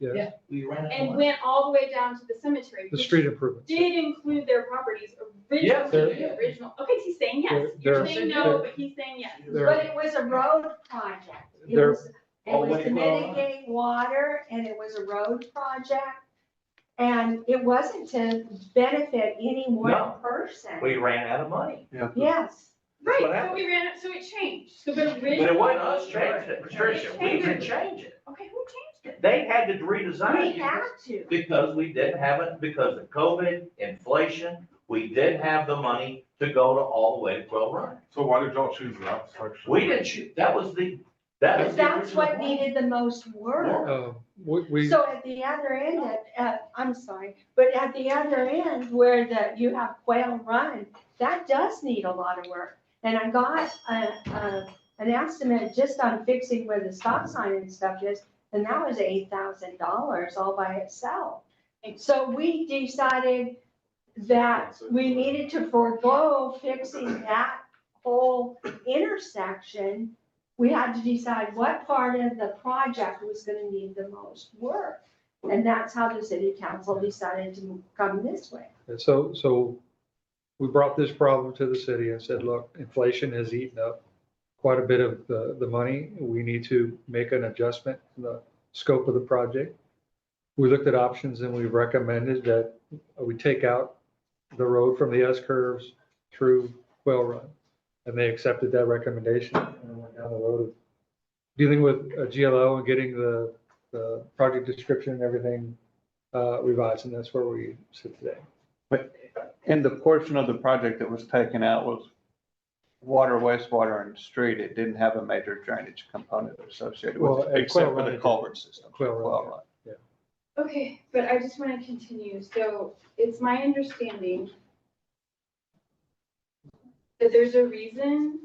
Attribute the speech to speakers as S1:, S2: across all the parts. S1: Yeah.
S2: yes,
S3: We ran
S4: and
S3: out of money.
S4: went all the way down to the cemetery.
S1: The
S4: which
S1: street improvements.
S4: Did include their properties
S3: Yes,
S4: originally,
S3: they
S4: the
S3: did.
S4: original, okay, he's saying yes.
S1: They're-
S4: You're
S1: they're-
S4: saying no,
S1: they're-
S4: but he's saying yes.
S1: They're-
S5: But it was a road project. It
S1: There-
S5: was, it
S3: Oh,
S5: was
S3: wait,
S5: to
S3: well, I-
S5: mitigate water and it was a road project. And it wasn't to benefit any one
S3: No.
S5: person.
S3: We ran out of money.
S5: Yes,
S4: Right,
S3: That's what
S4: so
S3: happened.
S4: we ran it, so it changed. So but
S3: But
S4: originally.
S3: it wasn't us changing it, Patricia, we didn't change it.
S4: Okay, who changed it?
S3: They had to
S5: we
S3: redesign
S5: had
S3: it
S5: to.
S3: because we didn't have it, because of COVID, inflation, we didn't have the money to go to all the way to Quail Run.
S6: So why did y'all choose that section?
S3: We didn't shoot, that was the, that was the
S5: That's what
S3: original
S5: needed the most work.
S1: Uh, We, we,
S5: So at the other end, at- at- I'm sorry, but at the other end where the, you have Quail Run, that does need a lot of work. And I got a, a, an estimate just on fixing where the stop sign and stuff is, and that was eight thousand dollars all by itself. So we decided that we needed to forego fixing that whole intersection we had to decide what part of the project was gonna need the most work. And that's how the city council decided to come this way.
S1: and so, so we brought this problem to the city and said, look, inflation has eaten up quite a bit of the, the money. We need to make an adjustment in the scope of the project. We looked at options and we recommended that we take out the road from the S curves through Quail Run. And they accepted that recommendation and went down the road of dealing with a GLO and getting the, the project description and everything uh, revised. And that's where we sit today.
S7: And the portion of the project that was taken out was water, wastewater and street. It didn't have a major drainage component associated
S1: Well,
S7: with
S1: at
S7: it,
S1: Quail
S7: except for
S1: Run, it
S7: the
S1: did.
S7: culvert system.
S1: Quail Run,
S7: Quail
S1: yeah.
S7: Run.
S4: Okay, but I just want to continue. So it's my understanding that there's a reason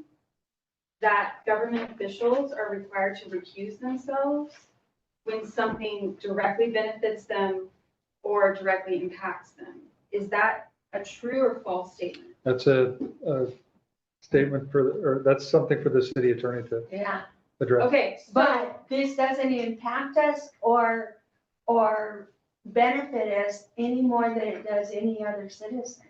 S4: that government officials are required to recuse themselves when something directly benefits them or directly impacts them. Is that a true or false statement?
S1: That's a, a statement for, or that's something for the city attorney to
S5: Yeah.
S1: address.
S4: Okay, but
S5: But this doesn't impact us or, or benefit us any more than it does any other citizen.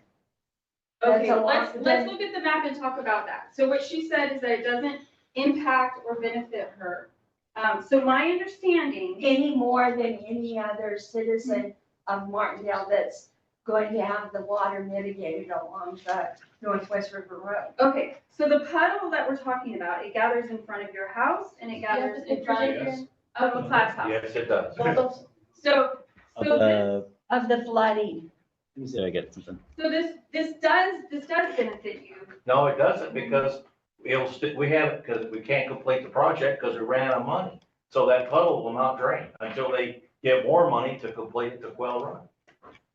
S5: That's
S4: Okay,
S5: a lot.
S4: let's, let's look at the map and talk about that. So what she said is that it doesn't impact or benefit her. Um, so my understanding,
S5: Any more than any other citizen of Martindale that's going to have the water mitigated along the Northwest River Road.
S4: okay, so the puddle that we're talking about, it gathers in front of your house and it gathers in front
S6: Yes.
S4: of a class house.
S3: Yes, it does.
S4: So, so this,
S8: Uh,
S5: Of the flooding.
S8: did I get something?
S4: so this, this does, this does benefit you.
S3: No, it doesn't because it'll, st- we haven't, because we can't complete the project because we ran out of money. So that puddle will not drain until they get more money to complete the Quail Run.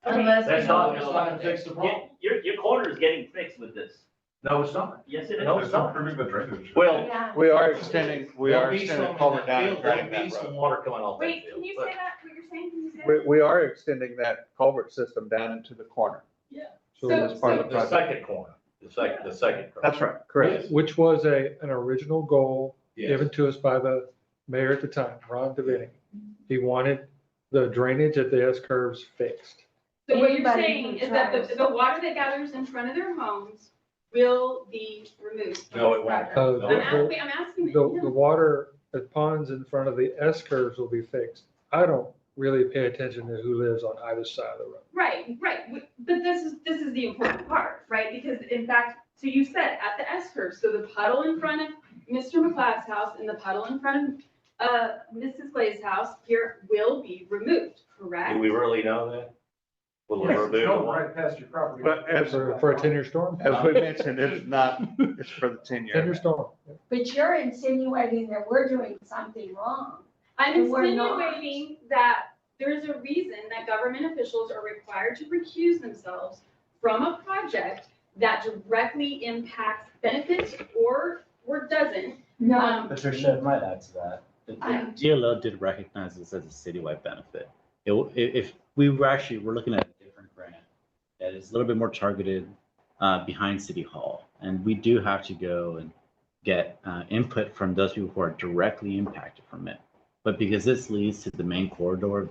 S4: Okay,
S3: That's not, that's not gonna fix the problem.
S9: Your, your corner is getting fixed with this.
S3: No, it's not.
S9: Yes, it is.
S3: No,
S6: It's
S3: it's not.
S6: improving the drainage.
S3: Well,
S5: Yeah.
S7: We are extending, we
S3: There'll
S7: are
S3: be
S7: extending
S3: some in that
S7: culvert down and
S3: field, there'll
S7: draining
S3: be
S7: that
S3: some
S7: road.
S3: Water coming off that
S4: Wait,
S3: field,
S4: can you
S3: but-
S4: say that, what you're saying, can you say?
S7: We, we are extending that culvert system down into the corner.
S1: So
S4: So-
S1: that's
S7: part of
S4: so-
S7: the
S3: The second corner, the second, the second. corner.
S7: That's right, correct.
S1: Which was a, an original goal
S3: Yes.
S1: given to us by the mayor at the time, Ron Devaney. He wanted the drainage at the S curves fixed.
S4: So what you're
S5: Anybody
S4: saying
S5: who
S4: is that the,
S5: drives.
S4: the water that gathers in front of their homes will be removed. from
S3: No,
S4: this
S3: it won't.
S4: project.
S1: Uh,
S4: I'm
S3: No.
S1: the-
S4: asking, I'm
S1: The,
S4: asking.
S1: the the water, the ponds in front of the S curves will be fixed. I don't really pay attention to who lives on either side of the road.
S4: Right, right, W- but this is, this is the important part, right, because in fact, so you said at the S curve, so the puddle in front of Mr. McLeod's house and the puddle in front of, uh, Mrs. Clay's house here will be removed,
S3: Do
S4: correct?
S3: we really know that? Will it remove the water?
S2: past your property.
S7: But as,
S1: For for a ten-year storm,
S7: as we mentioned, it's not, it's for the ten year.
S1: ten-year storm.
S5: But you're insinuating that we're doing something wrong.
S4: I'm
S5: We're not.
S4: insinuating that there's a reason that government officials are required to recuse themselves from a project that directly impacts benefits or, or doesn't.
S5: No,
S4: Um,
S8: Patricia, I might add to that.
S5: I-
S8: The GLO did recognize this as a citywide benefit. It, w- i- if, we were actually, we're looking at a different grant that is a little bit more targeted uh, behind City Hall. And we do have to go and get uh, input from those people who are directly impacted from it. But because this leads to the main corridor